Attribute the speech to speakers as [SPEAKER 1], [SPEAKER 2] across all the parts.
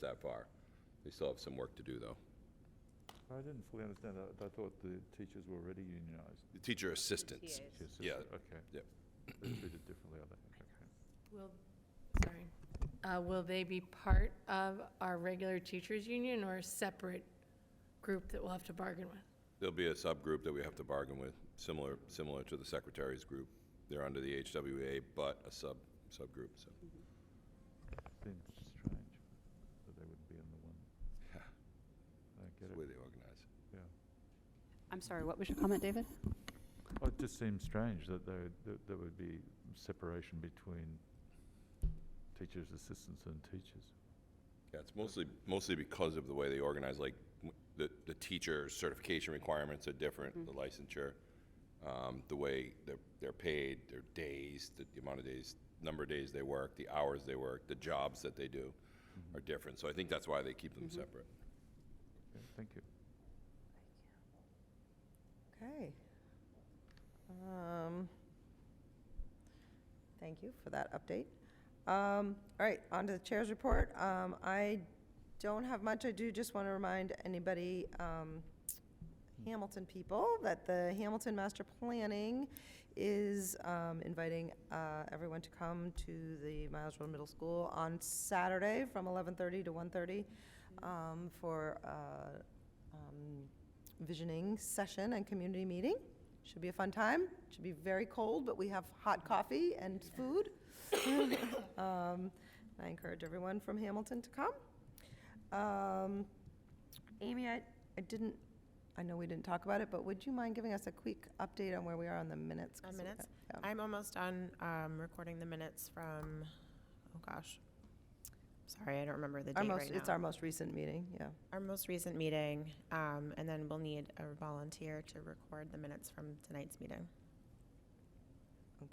[SPEAKER 1] that far. They still have some work to do, though.
[SPEAKER 2] I didn't fully understand that. I thought the teachers were already unionized.
[SPEAKER 1] The Teacher assistants.
[SPEAKER 3] TAs.
[SPEAKER 2] Yes,
[SPEAKER 1] Yeah.
[SPEAKER 2] Okay.
[SPEAKER 1] Yep.
[SPEAKER 2] They're treated differently, are they? Okay.
[SPEAKER 3] Will, sorry, Uh, will they be part of our regular teachers' union or a separate group that we'll have to bargain with?
[SPEAKER 1] There'll be a subgroup that we have to bargain with, similar, similar to the secretaries group. They're under the HWA, but a sub, subgroup, so.
[SPEAKER 2] Seems strange that they wouldn't be in the one.
[SPEAKER 1] Yeah,
[SPEAKER 2] I don't get
[SPEAKER 1] That's
[SPEAKER 2] it.
[SPEAKER 1] the way they organize.
[SPEAKER 2] Yeah.
[SPEAKER 4] I'm sorry, what was your comment, David?
[SPEAKER 2] Oh, it just seems strange that there, that there would be separation between teachers' assistants and teachers.
[SPEAKER 1] Yeah, it's mostly, mostly because of the way they organize, like, w- the, the teacher certification requirements are different, the licensure, um, the way they're, they're paid, their days, the the amount of days, number of days they work, the hours they work, the jobs that they do
[SPEAKER 2] Mm-hmm.
[SPEAKER 1] are different. So I think that's why they keep them separate.
[SPEAKER 2] Okay, Thank you.
[SPEAKER 5] Okay. Um, Thank you for that update. Um, All right, on to the chair's report. Um, I don't have much. I do just want to remind anybody, um, Hamilton people, that the Hamilton Master Planning is um, inviting uh, everyone to come to the Miles Road Middle School on Saturday from 11:30 to 1:30 um, for uh, um, visioning session and community meeting. Should be a fun time. Should be very cold, but we have hot coffee and food. Um, I encourage everyone from Hamilton to come. Um, Amy, I, I didn't, I know we didn't talk about it, but would you mind giving us a quick update on where we are on the minutes? 'Cause
[SPEAKER 6] On
[SPEAKER 5] we-
[SPEAKER 6] minutes?
[SPEAKER 5] yeah.
[SPEAKER 6] I'm almost done um, recording the minutes from, oh gosh. Sorry, I don't remember the
[SPEAKER 5] Our
[SPEAKER 6] date
[SPEAKER 5] most,
[SPEAKER 6] right
[SPEAKER 5] it's
[SPEAKER 6] now.
[SPEAKER 5] our most recent meeting, yeah.
[SPEAKER 6] Our most recent meeting, um, and then we'll need a volunteer to record the minutes from tonight's meeting.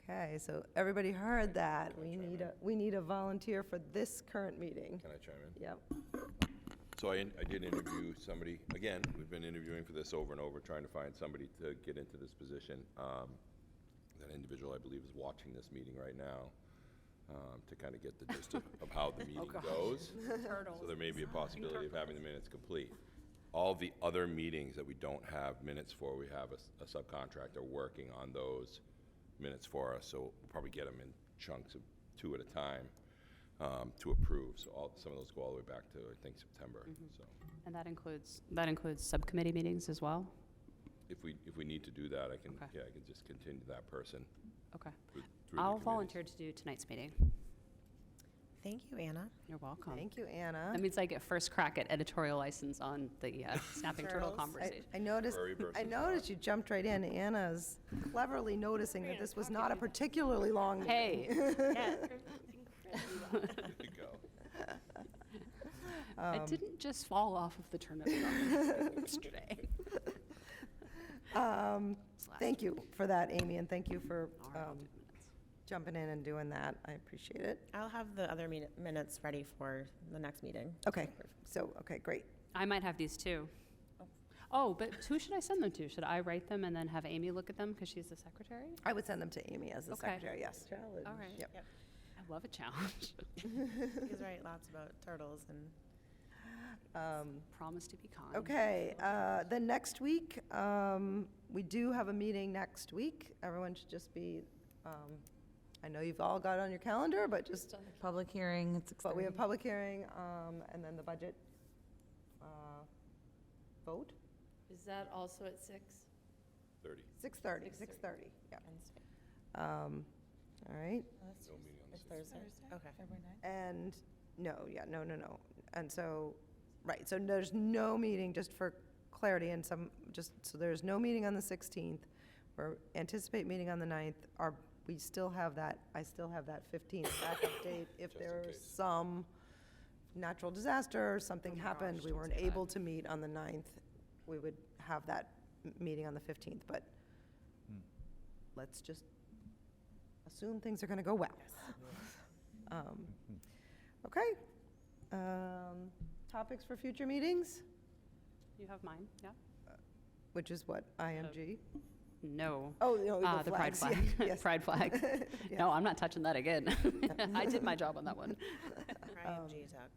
[SPEAKER 5] Okay, so everybody heard that.
[SPEAKER 1] Can I
[SPEAKER 5] We
[SPEAKER 1] chime
[SPEAKER 5] need
[SPEAKER 1] in?
[SPEAKER 5] a, we need a volunteer for this current meeting.
[SPEAKER 1] Can I chime in?
[SPEAKER 5] Yep.
[SPEAKER 1] So I, I did interview somebody, again, we've been interviewing for this over and over, trying to find somebody to get into this position. Um, That individual, I believe, is watching this meeting right now, um, to kind of get the gist of of how the meeting goes. So there may be a possibility of having the minutes complete. All the other meetings that we don't have minutes for, we have a s- a subcontractor working on those minutes for us, so we'll probably get them in chunks of two at a time um, to approve. So all, some of those go all the way back to, I think, September,
[SPEAKER 4] Mm-hmm.
[SPEAKER 1] so.
[SPEAKER 4] And that includes, that includes subcommittee meetings as well?
[SPEAKER 1] If we, if we need to do that, I can,
[SPEAKER 4] Okay.
[SPEAKER 1] yeah, I can just continue that person
[SPEAKER 4] Okay.
[SPEAKER 1] through through the
[SPEAKER 4] I'll
[SPEAKER 1] committees.
[SPEAKER 4] volunteer to do tonight's meeting.
[SPEAKER 6] Thank you, Anna.
[SPEAKER 4] You're welcome.
[SPEAKER 5] Thank you, Anna.
[SPEAKER 4] That means I get first crack at editorial license on the uh, snapping turtle
[SPEAKER 6] Turtles. I-
[SPEAKER 5] I
[SPEAKER 4] conversation.
[SPEAKER 5] I noticed,
[SPEAKER 1] Furry
[SPEAKER 5] I
[SPEAKER 1] versus
[SPEAKER 5] noticed you jumped right in. Anna's cleverly noticing that this was not a particularly long meeting.
[SPEAKER 4] Hey,
[SPEAKER 1] There you go.
[SPEAKER 5] Um,
[SPEAKER 4] I didn't just fall off of the turnip truck yesterday.
[SPEAKER 5] Um,
[SPEAKER 4] It's last
[SPEAKER 5] Thank you for that, Amy, and thank you for
[SPEAKER 4] All right, I'll
[SPEAKER 5] um,
[SPEAKER 4] do minutes.
[SPEAKER 5] jumping in and doing that. I appreciate it.
[SPEAKER 6] I'll have the other meet- minutes ready for the next meeting.
[SPEAKER 5] Okay, so, okay, great.
[SPEAKER 4] I might have these too. Oh, but who should I send them to? Should I write them and then have Amy look at them because she's the secretary?
[SPEAKER 5] I would send them to Amy as the
[SPEAKER 4] Okay.
[SPEAKER 5] secretary, yes. Challenge.
[SPEAKER 4] All right.
[SPEAKER 5] Yep.
[SPEAKER 4] I love a challenge.
[SPEAKER 6] He's right, lots about turtles and
[SPEAKER 5] Um,
[SPEAKER 4] Promise to be kind.
[SPEAKER 5] Okay, uh, then next week, um, we do have a meeting next week. Everyone should just be, um, I know you've all got it on your calendar, but just,
[SPEAKER 7] Public hearing, it's
[SPEAKER 5] but we have
[SPEAKER 7] 6:30.
[SPEAKER 5] public hearing um, and then the budget uh, vote,
[SPEAKER 3] Is that also at six?
[SPEAKER 1] 30,
[SPEAKER 5] 6:30, 6:30, yeah. Um, All right,
[SPEAKER 1] no meeting on the
[SPEAKER 6] It's
[SPEAKER 1] 16th.
[SPEAKER 6] Thursday. Okay.
[SPEAKER 5] And, no, yeah, no, no, no. And so, right, so there's no meeting, just for clarity and some, just, so there's no meeting on the 16th. We're anticipate meeting on the 9th. Our, we still have that, I still have that 15th backup date. If
[SPEAKER 1] Just in
[SPEAKER 5] there's
[SPEAKER 1] case.
[SPEAKER 5] some natural disaster or something happened, we weren't able to meet on the 9th, we would have that m- meeting on the 15th. But let's just assume things are going to go well. Um,
[SPEAKER 1] Mm-hmm.
[SPEAKER 5] Okay. Um, Topics for future meetings,
[SPEAKER 4] You have mine, yeah?
[SPEAKER 5] which is what, IMG?
[SPEAKER 4] No.
[SPEAKER 5] Oh, no, the
[SPEAKER 4] Uh, pride
[SPEAKER 5] flags,
[SPEAKER 4] flag.
[SPEAKER 5] yeah, yes.
[SPEAKER 4] Pride flag.
[SPEAKER 5] Yes.
[SPEAKER 4] No, I'm not touching that again. I did my job on that one.
[SPEAKER 5] Um,
[SPEAKER 6] IMG Tech.